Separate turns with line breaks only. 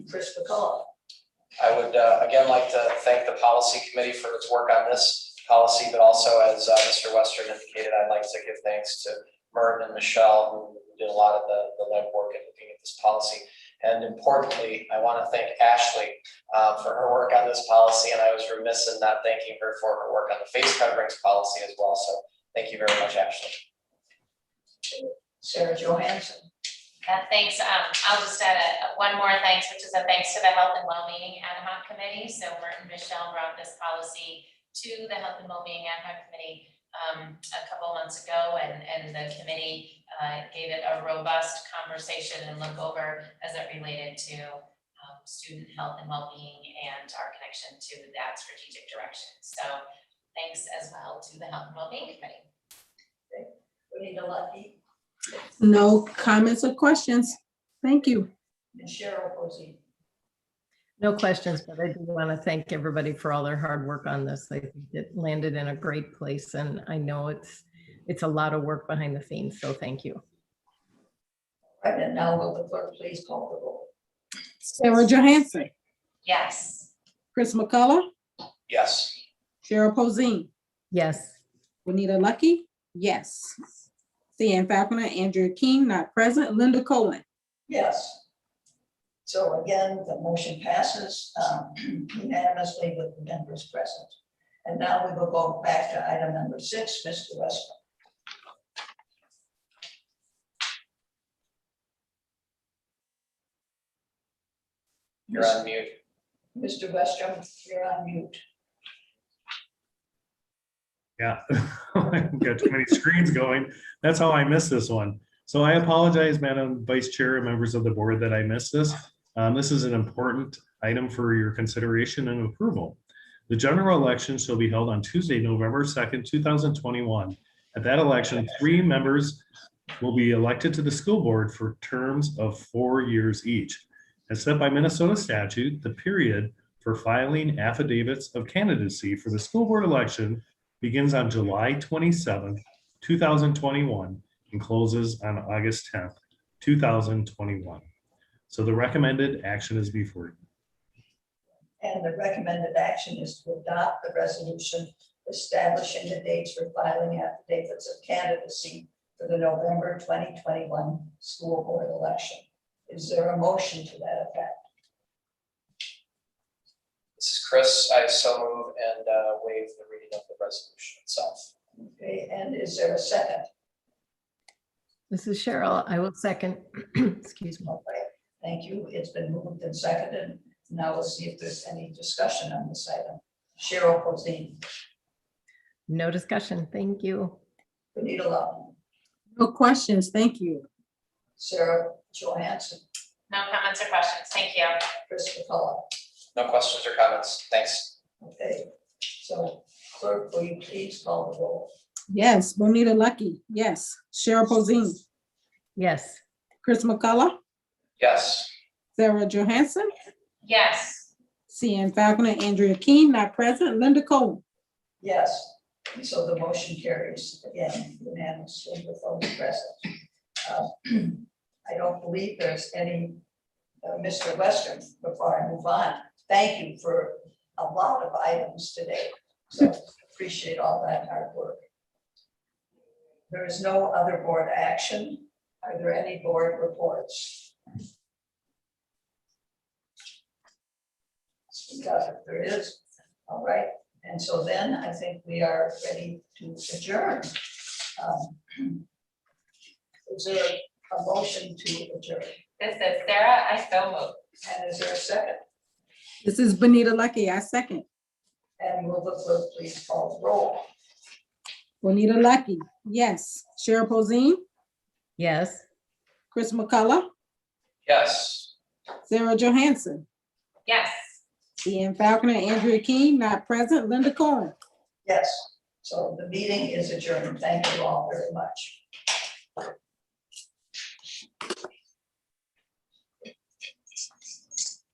Chris McCall.
I would, uh, again, like to thank the policy committee for its work on this policy, but also as, uh, Mr. Western indicated, I'd like to give thanks to Merton and Michelle, who did a lot of the, the legwork in looking at this policy. And importantly, I want to thank Ashley, uh, for her work on this policy, and I was remiss in not thanking her for her work on the face coverings policy as well, so thank you very much, Ashley.
Sarah Johansson.
Yeah, thanks. Um, I'll just add a, one more thanks, which is a thanks to the Health and Wellbeing Ad hoc Committee. So Merton Michelle brought this policy to the Health and Wellbeing Ad hoc Committee um, a couple months ago and, and the committee uh, gave it a robust conversation and look over as it related to um, student health and wellbeing and our connection to that strategic direction. So thanks as well to the Health and Wellbeing Committee.
Rita Lucky
No comments or questions. Thank you.
and Cheryl Posey.
No questions, but I do want to thank everybody for all their hard work on this. I think it landed in a great place and I know it's, it's a lot of work behind the scenes, so thank you.
Right, and now will the clerk please call the roll?
Sarah Johansson,
Yes.
Chris McCullough,
Yes,
Cheryl Posey,
Yes,
Juanita Lucky, yes. CN Falconer, Andrea King, not present. Linda Cohen,
Yes. So again, the motion passes um, unanimously with the members present. And now we will go back to item number six, Mr. Westbrook.
you're on mute.
Mr. Westrum, you're on mute.
Yeah, got too many screens going. That's how I missed this one. So I apologize, Madam Vice Chair, and members of the board, that I missed this. Um, This is an important item for your consideration and approval. The general election shall be held on Tuesday, November 2nd, 2021. At that election, three members will be elected to the school board for terms of four years each. As set by Minnesota statute, the period for filing affidavits of candidacy for the school board election begins on July twenty-seventh, two thousand twenty-one, and closes on August tenth, two thousand twenty-one. So the recommended action is before you.
And the recommended action is to adopt the resolution establishing the dates for filing affidavits of candidacy for the November 2021 school board election. Is there a motion to that effect?
This is Chris, I so move and, uh, waive the reading of the resolution itself.
Okay, and is there a second?
this is Cheryl. I will second. Excuse me.
Okay, thank you. It's been moved and seconded. Now we'll see if there's any discussion on this item. Cheryl Posey,
No discussion. Thank you.
Benita Love,
no questions. Thank you.
Sarah Johansson,
No comments or questions. Thank you.
Chris McCullough.
No questions or comments, thanks.
Okay, so clerk, will you please call the roll?
Yes, Bonita Lucky, yes. Cheryl Posey,
Yes,
Chris McCullough,
Yes,
Sarah Johansson,
Yes.
CN Falconer, Andrea King, not present. Linda Cohen,
Yes, and so the motion carries again unanimously with all present. Uh, I don't believe there's any, uh, Mr. Western, before I move on, thank you for a lot of items today. So appreciate all that hard work. There is no other board action. Are there any board reports? Speak up if there is. All right, and so then I think we are ready to adjourn. Um, Is there a motion to adjourn?
This is Sarah. I so move.
And is there a second?
this is Bonita Lucky, I second.
And will the clerk please call the roll?
Bonita Lucky, yes. Cheryl Posey,
yes.
Chris McCullough,
yes.
Sarah Johansson,
Yes.
Ian Falconer, Andrea King, not present, Linda Cohen.
Yes, so the meeting is adjourned. Thank you all very much.